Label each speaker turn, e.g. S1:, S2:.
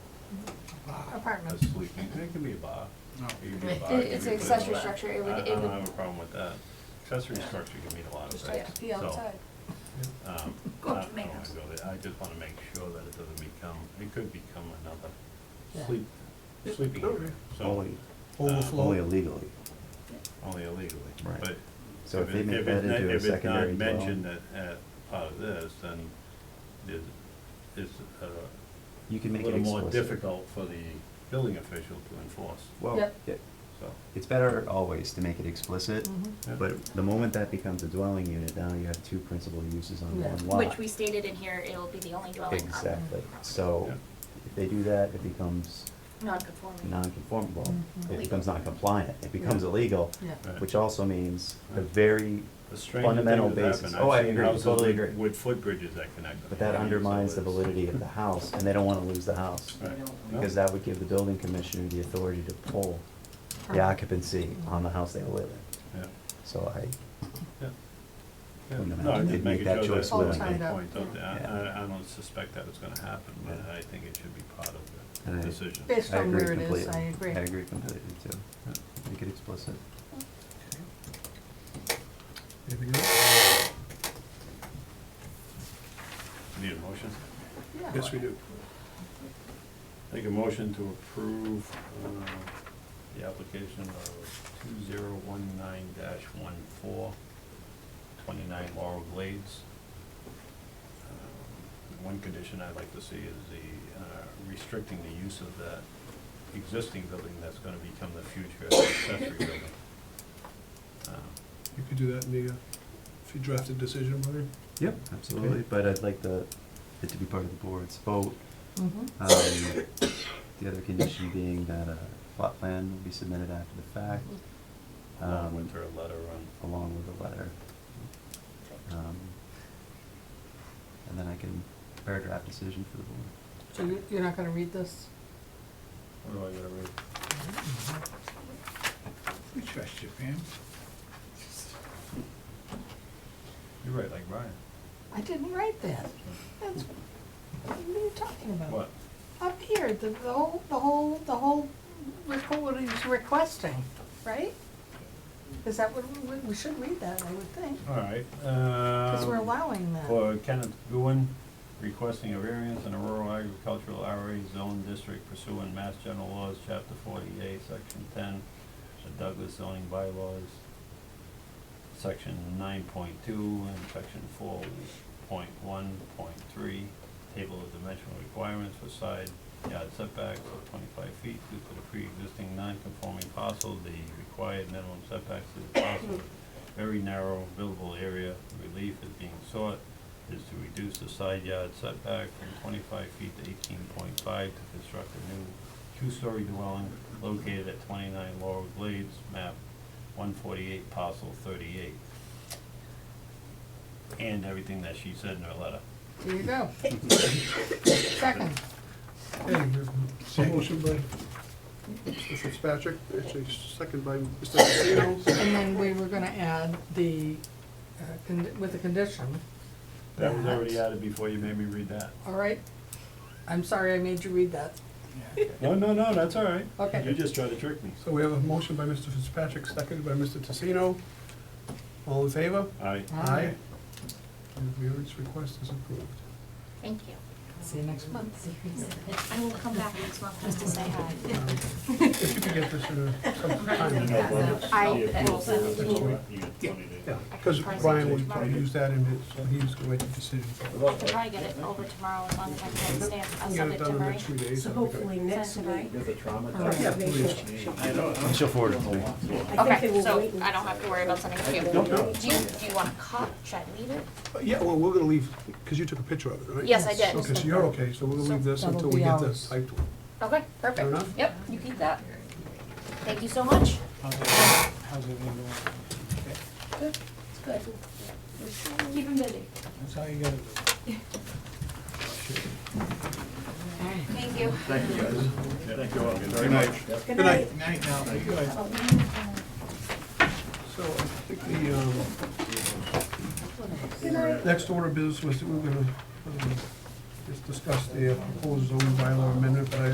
S1: a
S2: apartment.
S1: sleeping, it can be a bar.
S3: No.
S1: It can be a
S2: It-
S1: bar, it
S2: it's
S1: can
S2: an
S1: be a place-
S2: accessory structure, it would-
S1: I-
S2: it
S1: I
S2: would-
S1: don't have a problem with that. Accessory structure can mean a lot of
S2: Just
S1: things,
S2: like
S1: so.
S2: be outside.
S1: um, I-
S4: Go up to
S1: I
S4: my
S1: don't wanna
S4: house.
S1: go there. I just wanna make sure that it doesn't become, it could become another
S5: Yeah.
S1: sleep, sleeping area, so, um,
S6: Only, only
S3: Overflow.
S6: illegally.
S1: only illegally,
S6: Right.
S1: but.
S6: So if they
S1: it-
S6: make
S1: it's
S6: that
S1: not-
S6: into a
S1: If
S6: secondary
S1: it's not mentioned
S6: dwelling,
S1: at, at part of this, then there's, it's a
S6: you can make it
S1: little more
S6: explicit.
S1: difficult for the building official to enforce,
S6: Well,
S2: Yep.
S6: yeah,
S1: so.
S6: it's better always to make it explicit,
S5: Mm-hmm.
S1: yeah.
S6: but the moment that becomes a dwelling unit, now you have two principal uses on
S5: Yeah.
S6: one lot.
S4: Which we stated in here, it'll be the only dwelling on
S6: Exactly, so
S1: Yeah.
S6: if they do that, it becomes
S4: non-conforming.
S6: non-conformable,
S5: Mhm.
S6: it becomes non-compliant, it becomes illegal,
S5: Yeah.
S1: Right.
S6: which also means a
S1: Right.
S6: very,
S1: The stranger
S6: fundamental
S1: thing that's
S6: basis.
S1: happened,
S6: Oh, I
S1: I've seen
S6: agree,
S1: houses
S6: totally
S1: with-
S6: agree.
S1: With footbridges that connect them.
S6: but that
S1: you know, so
S6: undermines the
S1: it's-
S6: validity of the house, and they don't wanna lose the house.
S1: Right.
S6: Because that would give the building commissioner the authority to pull the
S5: Permit.
S6: occupancy on the house they live in.
S1: Yeah,
S6: So I,
S1: yeah. Yeah.
S6: Wouldn't
S1: No,
S6: imagine
S1: I'm
S6: they'd
S1: just
S6: make
S1: making
S6: that
S1: sure
S6: choice
S1: that's on
S6: willingly.
S1: the point, don't they?
S6: Yeah.
S1: I, I- I don't suspect that was gonna happen, but
S6: Yeah.
S1: I think it should be part of
S6: And
S1: the
S6: I-
S1: decision.
S2: Based
S6: I
S2: on
S6: agree
S2: where it
S6: completely.
S2: is, I agree.
S6: completely too.
S1: Yeah.
S6: Make it explicit.
S3: Anything else?
S1: Need a motion?
S2: Yeah.
S3: Yes, we do.
S1: Make a motion to approve, uh, the application of two zero one nine dash one four, twenty-nine Laurel Glades. Um, One condition I'd like to see is the, uh, restricting the use of that existing building that's gonna become the future accessory building. Um,
S3: You could do that in the, uh, if you drafted decision, Brian.
S6: Yep, absolutely, but I'd like the, it to be part of the board's vote.
S5: Mhm.
S6: Um, The other condition being that a plot plan will be submitted after the fact,
S1: Along
S2: Mm-hmm.
S6: Um,
S1: with her letter on,
S6: along with a letter. Um, And then I can prepare a draft decision for the board.
S5: So you're, you're not gonna read this?
S1: what do I gotta read?
S3: We trust you, Pam.
S1: You're right, like Brian.
S5: I didn't write that. That's, what are you talking about?
S1: What?
S5: Up here, the, the whole, the whole, the whole, requ- what he's requesting, right? Is that what, we, we should read that, I would think,
S1: All right.
S5: because we're
S1: um,
S5: allowing that.
S1: For Kenneth Goodwin, requesting a variance in a rural agricultural RA zone district pursuant Mass General Laws, Chapter forty-eight, Section ten, the Douglas zoning bylaws, Section nine point two and Section four point one point three, table of dimensional requirements for side yard setbacks of twenty-five feet due to the pre-existing non-conforming parcel, the required minimum setbacks of the parcel very narrow buildable area, relief is being sought is to reduce the side yard setback from twenty-five feet to eighteen point five to construct a new two-story dwelling located at twenty-nine Laurel Glades, map one forty-eight, parcel thirty-eight. And everything that she said in her letter.
S5: There you go. Second,
S3: Hey, there's a motion by Mr. Fitzpatrick, actually second by Mr. Casino.
S5: and then we were gonna add the, uh, con- with the condition.
S1: That was already
S5: that-
S1: added before you made me read that.
S5: All right, I'm sorry I made you read that.
S1: No, no, no, that's all right.
S5: Okay.
S1: You just tried to trick me.
S3: So we have a motion by Mr. Fitzpatrick, seconded by Mr. Tassino. All in favor?
S1: I,
S5: Aye.
S3: And the variance request is approved.
S4: Thank you.
S5: See you next month.
S4: I will come back next month just to say hi.
S3: Um, If you could get this in a, some
S1: you
S3: time.
S1: know, Robert's-
S4: I-
S1: the approval for the-
S3: That's all right.
S1: You got twenty days.
S3: Yeah, because Brian would probably use that in his, so he was gonna make the decision.
S4: I could probably get it over tomorrow as long as I can stamp, I'll
S3: Get
S4: send
S3: it
S4: it to
S3: done in the
S4: Murray.
S3: next few days.
S7: So
S3: that'd be
S7: hopefully
S3: great.
S7: next
S4: Send it to
S7: week.
S4: Mike.
S3: Oh, Yeah, please.
S6: She'll forward it to me.
S7: I think they
S4: Okay,
S7: were
S4: so
S7: waiting.
S4: I don't have to worry about sending it to you.
S3: no.
S4: Do you, do you want a cop? Should I leave it?
S3: Uh, Yeah, well, we're gonna leave, because you took a picture of it, right?
S4: Yes, I did.
S3: Okay, so you're okay, so we're gonna leave this
S5: So
S3: until
S5: that'll
S3: we
S5: be
S3: get
S5: ours.
S3: this typed.
S4: Okay,
S3: Fair
S4: perfect.
S3: enough?
S4: Yep, you keep that. Thank you so much.
S8: How's everything going?
S4: Good, it's good. Keep him busy.
S8: That's how you gotta do it.
S4: Thank you.
S7: Good
S3: Good
S7: night.
S3: night.
S8: Night now.
S3: So I think the, um, next order of business was, that we we're gonna, um, just discuss the proposed zoning bylaw amendment, but I